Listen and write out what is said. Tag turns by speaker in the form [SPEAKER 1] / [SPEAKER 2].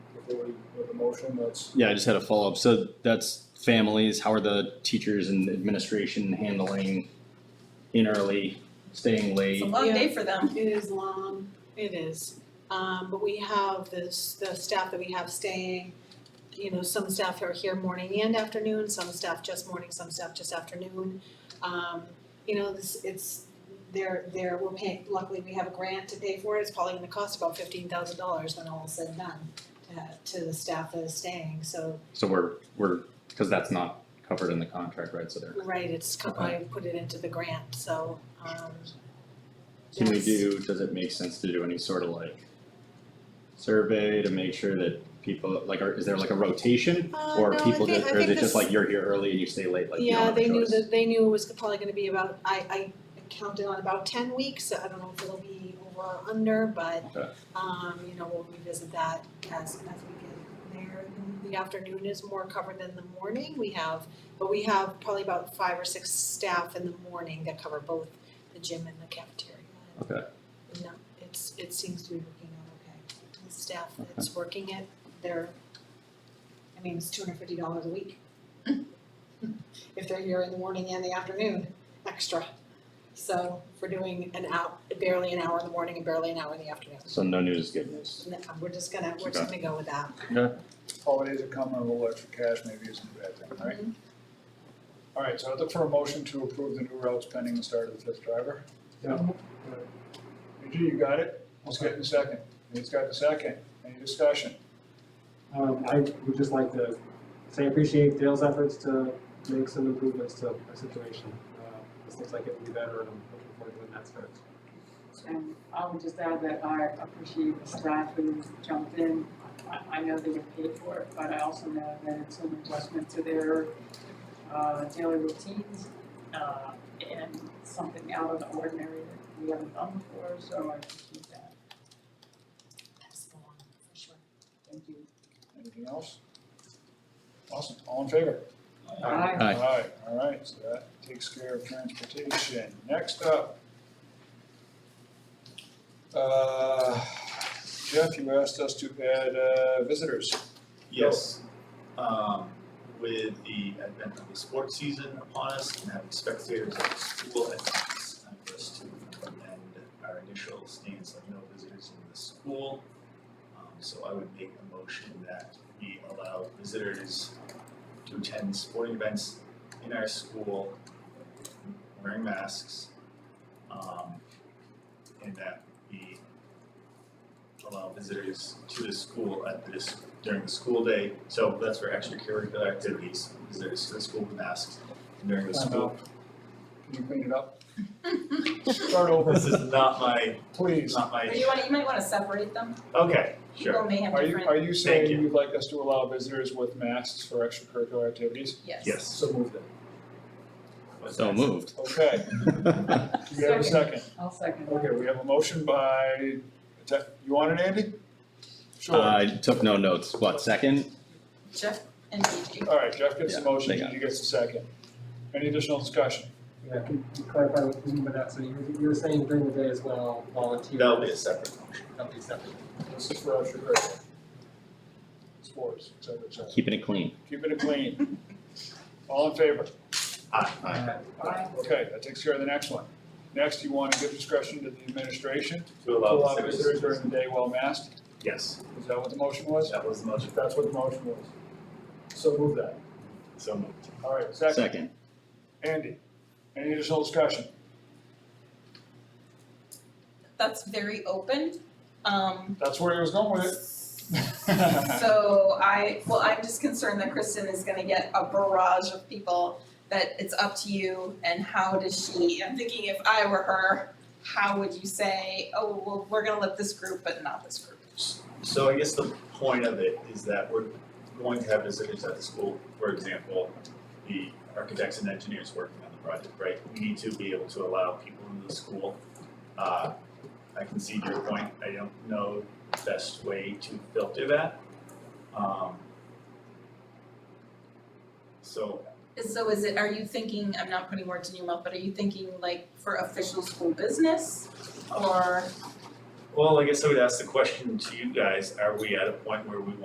[SPEAKER 1] motion, that's,
[SPEAKER 2] Yeah, I just had a follow-up. So that's families, how are the teachers and administration handling in early, staying
[SPEAKER 3] It's
[SPEAKER 2] late?
[SPEAKER 3] a long day for them.
[SPEAKER 4] It is long, it is, um, but we have this, the staff that we have staying, you know, some staff are here morning and afternoon, some staff just morning, some staff just afternoon. Um, you know, this, it's, they're, they're, we're paying, luckily we have a grant to pay for it, it's probably gonna cost about fifteen thousand dollars when all is said and done to, to the staff that is staying, so,
[SPEAKER 2] So we're, we're, because that's not covered in the contract, right? So there,
[SPEAKER 4] right, it's, co- I put it into the grant, so, um,
[SPEAKER 2] can we
[SPEAKER 4] yes.
[SPEAKER 2] do, does it make sense to do any sort of like survey to make sure that people, like, are, is there like a rotation?
[SPEAKER 4] Uh,
[SPEAKER 2] Or
[SPEAKER 4] no, I
[SPEAKER 2] people
[SPEAKER 4] think-
[SPEAKER 2] just,
[SPEAKER 4] I
[SPEAKER 2] or is
[SPEAKER 4] think
[SPEAKER 2] it just
[SPEAKER 4] this-
[SPEAKER 2] like you're here early and you stay late, like you don't
[SPEAKER 4] Yeah,
[SPEAKER 2] have a
[SPEAKER 4] they knew
[SPEAKER 2] choice?
[SPEAKER 4] that, they knew it was probably gonna be about, I, I counted on about ten weeks, so I don't know if it'll be over or under, but,
[SPEAKER 2] Okay.
[SPEAKER 4] um, you know, we'll revisit that as, as we get there. The afternoon is more covered than the morning, we have, but we have probably about five or six staff in the morning that cover both the gym and the cafeteria.
[SPEAKER 2] Okay.
[SPEAKER 4] No, it's, it seems to be working out okay. The staff that's working it, they're, I mean, it's two hundred fifty dollars a week if they're here in the morning and the afternoon, extra. So for doing an hour, barely an hour in the morning and barely an hour in the afternoon.
[SPEAKER 2] So no news is good news.
[SPEAKER 4] And that- We're just gonna, we're just gonna go with that.
[SPEAKER 1] holidays are coming, a little extra cash maybe isn't a bad thing, right? All right, so I look for a motion to approve the new routes pending the start of the fifth driver.
[SPEAKER 5] Yeah.
[SPEAKER 1] Eugene, you got it? Let's get the second. Nate's got the second. Any discussion?
[SPEAKER 5] Um, I would just like to say I appreciate Dale's efforts to make some improvements to our situation. Uh, This looks like it would be better and I'm looking forward to when that starts.
[SPEAKER 6] And I would just add that I appreciate the staff who jumped in. I, I know they get paid for it, but I also know that it's an adjustment to their, uh, daily routines, uh, and something out of the ordinary that we haven't done before, so I appreciate that.
[SPEAKER 4] Pass it along, for sure.
[SPEAKER 6] Thank you.
[SPEAKER 1] Anything else? Awesome. All in favor?
[SPEAKER 5] Um,
[SPEAKER 6] Aye.
[SPEAKER 2] Aye.
[SPEAKER 1] all right, so that takes care of transportation. Next up. Uh, Jeff, you asked us to add uh, visitors.
[SPEAKER 7] Yes, um, with the advent of the sports season upon us and having spectators at the school entities, I'm just to amend our initial stance of no visitors in the school. Um, so I would make a motion that we allow visitors to attend sporting events in our school wearing masks. Um, and that we allow visitors to the school at this during the school day, so that's for extracurricular activities, because there's the school with masks and during the school.
[SPEAKER 1] Can you clean it up? Start over,
[SPEAKER 7] This is not my,
[SPEAKER 1] please.
[SPEAKER 7] not
[SPEAKER 3] Or
[SPEAKER 7] my,
[SPEAKER 3] you wanna, you might wanna separate them,
[SPEAKER 7] okay,
[SPEAKER 3] people
[SPEAKER 7] sure,
[SPEAKER 3] may have
[SPEAKER 1] Are you,
[SPEAKER 3] different,
[SPEAKER 1] are you
[SPEAKER 7] Thank
[SPEAKER 1] saying
[SPEAKER 7] you.
[SPEAKER 1] you'd like us to allow visitors with masks for extracurricular activities?
[SPEAKER 3] yes.
[SPEAKER 7] yes.
[SPEAKER 5] So moved.
[SPEAKER 7] What's
[SPEAKER 2] So
[SPEAKER 7] next?
[SPEAKER 2] moved.
[SPEAKER 1] Okay, do we have a second?
[SPEAKER 6] I'll second that.
[SPEAKER 1] Okay, we have a motion by, you want it, Andy? Sure.
[SPEAKER 2] I took no notes. What, second?
[SPEAKER 3] Jeff and Gigi.
[SPEAKER 1] All right, Jeff gets the
[SPEAKER 2] Yeah,
[SPEAKER 1] motion,
[SPEAKER 2] they got
[SPEAKER 1] Gigi gets the second. Any additional discussion?
[SPEAKER 5] Yeah, can you clarify what you mean by that? So you, you were saying during the day as well, volunteers.
[SPEAKER 7] That'll be a separate motion.
[SPEAKER 5] That'll be separate.
[SPEAKER 1] This is for extracurricular. Sports, et cetera, et cetera.
[SPEAKER 2] Keeping it clean.
[SPEAKER 1] Keeping it clean. All in favor?
[SPEAKER 7] Aye.
[SPEAKER 6] Aye.
[SPEAKER 1] Okay, that takes care of the next one. Next, you want to give discretion to the administration
[SPEAKER 7] To
[SPEAKER 1] to allow
[SPEAKER 7] allow
[SPEAKER 1] visitors
[SPEAKER 7] visitors.
[SPEAKER 1] during the day while masked.
[SPEAKER 7] Yes,
[SPEAKER 1] Is that what the motion was?
[SPEAKER 7] that was the motion,
[SPEAKER 1] If that's what the motion was. So move that.
[SPEAKER 7] so moved.
[SPEAKER 1] All right, second.
[SPEAKER 2] Second.
[SPEAKER 1] Andy, any additional discussion?
[SPEAKER 3] That's very open, um,
[SPEAKER 1] That's where he was going with it.
[SPEAKER 3] so I, well, I'm just concerned that Kristen is gonna get a barrage of people that it's up to you and how does she, I'm thinking if I were her, how would you say, oh, well, we're gonna let this group, but not this group?
[SPEAKER 7] So I guess the point of it is that we're going to have visitors at the school, for example, the architects and engineers working on the project, right? We need to be able to allow people into the school. Uh, I can see your point, I don't know the best way to filter that. Um, So,
[SPEAKER 3] So is it, are you thinking, I'm not putting words in your mouth, but are you thinking like for official school business? Or
[SPEAKER 7] well, I guess I would ask the question to you guys, are we at a point where we